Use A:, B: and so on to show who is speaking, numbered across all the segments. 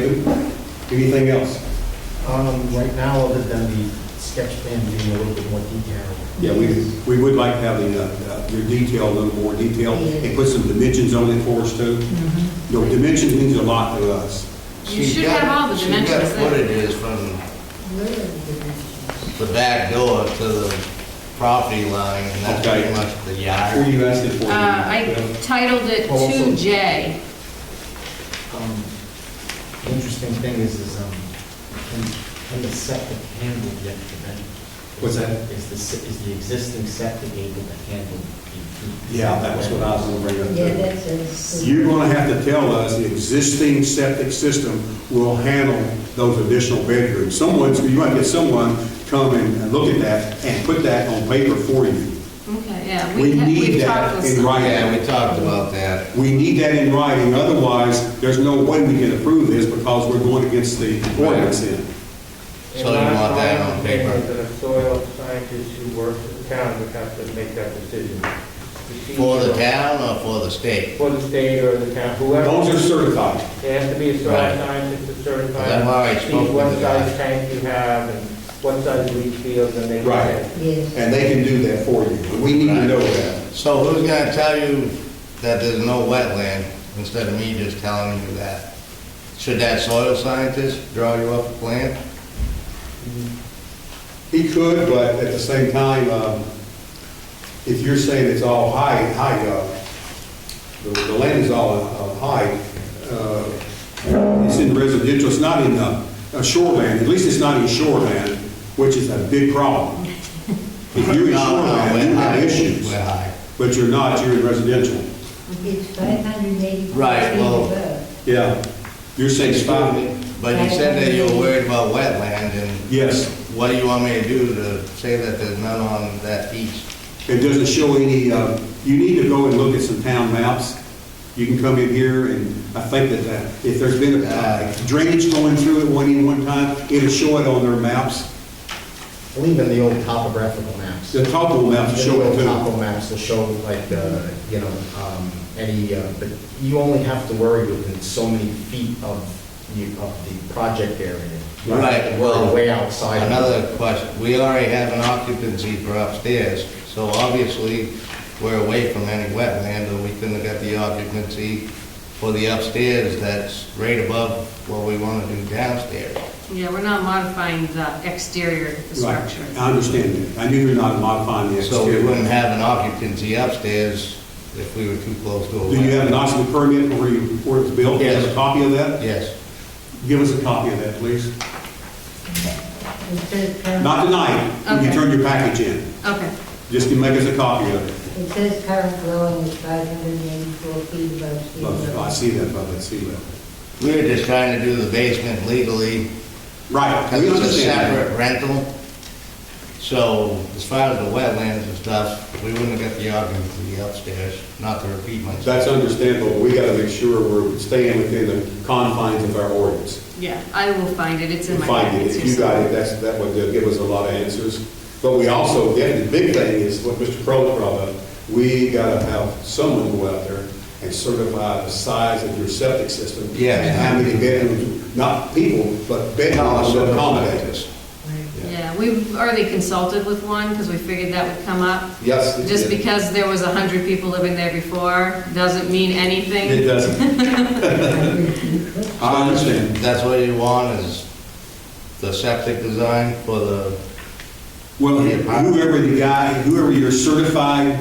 A: David, anything else?
B: Um, right now, other than the sketch plan being a little bit more detailed.
A: Yeah, we, we would like to have the, uh, uh, your detail, a little more detail, and put some dimensions on it for us too.
C: Mm-hmm.
A: You know, dimensions means a lot to us.
C: You
D: She's
C: should
D: got-
C: have all the dimensions
D: She's got
C: there.
D: footages from the back door to the property line, and that's
A: Okay.
D: pretty much the
A: Who are
D: yard.
A: you asking for?
C: Uh, I titled it
B: Well, also-
C: 2J.
B: Um, The interesting thing is, is, um, can- can the septic handle the extra bedroom?
A: What's that?
B: Is the, se- is the existing septic able to handle the? the-
A: Yeah, that was what I was gonna bring up.
E: Yeah,
A: too.
E: that's a.
A: You're gonna have to tell us the existing septic system will handle those additional bedrooms. Someone's, you might get someone come and and look at that and put that on paper for you.
C: Okay, yeah.
A: We
C: ha-
A: need
C: we've
A: that
C: talked with
A: in
C: some-
A: writing.
D: Yeah, we talked about that.
A: We need that in writing, otherwise, there's no way we can approve this because we're going against the ordinance in.
D: So you want that on paper?
F: And last line, the soil scientist who works for the town would have to make that decision.
D: For the town or for the state?
F: For the state or the town, whoever.
A: Those are certified.
F: There has to be a soil
D: Right.
F: scientist to certify.
D: I've already spoken to
F: See what
D: the
F: size
D: guy.
F: tank you have and what size leach field and they.
A: Right.
E: Yes.
A: And they can do that for you, but we need to know that.
D: So who's gonna tell you that there's no wetland instead of me just telling you that? Should that soil scientist draw you up a plan?
A: He could, but at the same time, um, if you're saying it's all high, high, uh, the, the land is all, uh, high, uh, it's in residential, it's not in, uh, uh, shoreland, at least it's not in shoreland, which is a big problem. If you're in
D: No, no,
A: shoreland,
D: we're
A: you have
D: high.
A: issues.
D: We're high.
A: But you're not, you're in residential.
E: It's five hundred and eighty.
D: Right, well-
A: Yeah. You're saying five,
D: But you said that you were worried about wetland, and
A: yes.
D: what do you want me to do to say that there's none on that beach?
A: It doesn't show any, uh, you need to go and look at some town maps. You can come in here and I think that uh, if there's been uh, drainage going through it one in one time, it'll show it on their maps.
B: I believe in the old topographical maps.
A: The topo maps
B: The
A: show it
B: old
A: too.
B: topo maps will show like, uh, you know, um, any, uh, but you only have to worry within so many feet of, you of the project area. You don't have to worry
D: Right, well,
B: Way outside. of it.
D: Another question, we already have an occupancy for upstairs, so obviously, we're away from any wetland, or we couldn't have got the occupancy for the upstairs that's right above what we want to do downstairs.
C: Yeah, we're not modifying the exterior of the
A: Right,
C: structure.
A: I understand that. I knew you're not modifying the
D: So we wouldn't
A: exterior.
D: have an occupancy upstairs if we were too close to a
A: Do you have
D: wetland.
A: an occupancy permit for where you- where it's built? Do you have a
D: Yes.
A: copy of that?
D: Yes,
A: Give us a copy of that, please.
E: It says, Car-
A: Not tonight, when you
C: Okay.
A: turn your package in.
C: Okay,
A: Just to make us a copy of it.
E: it says current flowing is five hundred and eighty-four feet above sea
A: Love-
E: level.
A: I see that, above that sea level.
D: we were just trying to do the basement legally,
A: Right,
D: Because
A: we
D: it's a
A: understand that.
D: separate rental. So as far as the wetlands and stuff, we wouldn't have got the occupancy upstairs, not to repeat myself.
A: That's understandable, we gotta make sure we're staying within the confines of our ordinance.
C: yeah, I will find it. It's in
A: And
C: my
A: find it,
C: packets.
A: if you got it, that's, that would give us a lot of answers. But we also, yeah, the big thing is what Mr. Crowley brought up, we gotta have someone go out there and certify the size of your septic system.
D: Yeah.
A: And how many bedrooms, not people, but bedrooms to accommodate us.
C: Yeah, we've already consulted with one because we figured that would come up.
A: Yes. it-
C: Just
A: it-
C: because there was 100 people living there before doesn't mean
A: It
C: anything.
A: doesn't. I understand.
D: That's what you want is the septic design for the,
A: Well, whoever the guy, whoever your certified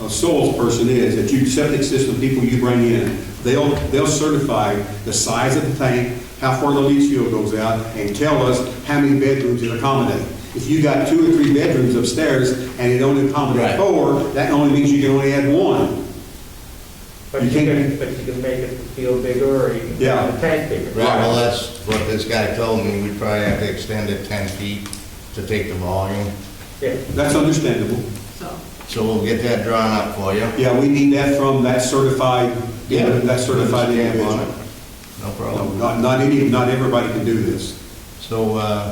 A: uh, soils person is, that you, septic system people you bring in, they'll, they'll certify the size of the tank, how far the leach field goes out, and tell us how many bedrooms it accommodates. If you got two or three bedrooms upstairs and it only accommodates
D: Right.
A: four, that only means you can only add one.
F: But
A: You
F: you
A: can't-
F: can, but you can make it feel bigger or you can
A: Yeah.
F: make the tank bigger.
D: right, well, that's what this guy told me, we'd probably have to extend it 10 feet to take the volume.
F: Yeah.
A: That's understandable.
C: So,
D: So we'll get that drawn up for you.
A: Yeah, we need that from that certified, that certified
D: Put a stamp
A: individual.
D: on it. No
A: No,
D: problem.
A: Not, not any, not everybody can do this.
D: So, uh,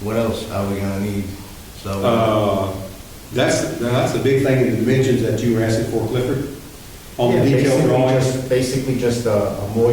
D: what else are we gonna need? So.
A: Uh, That's, that's the big thing in the dimensions that you were asking for, Clifford, on the
B: Yeah,
A: detailed
B: basically
A: drawings.
B: just- Basically just a a more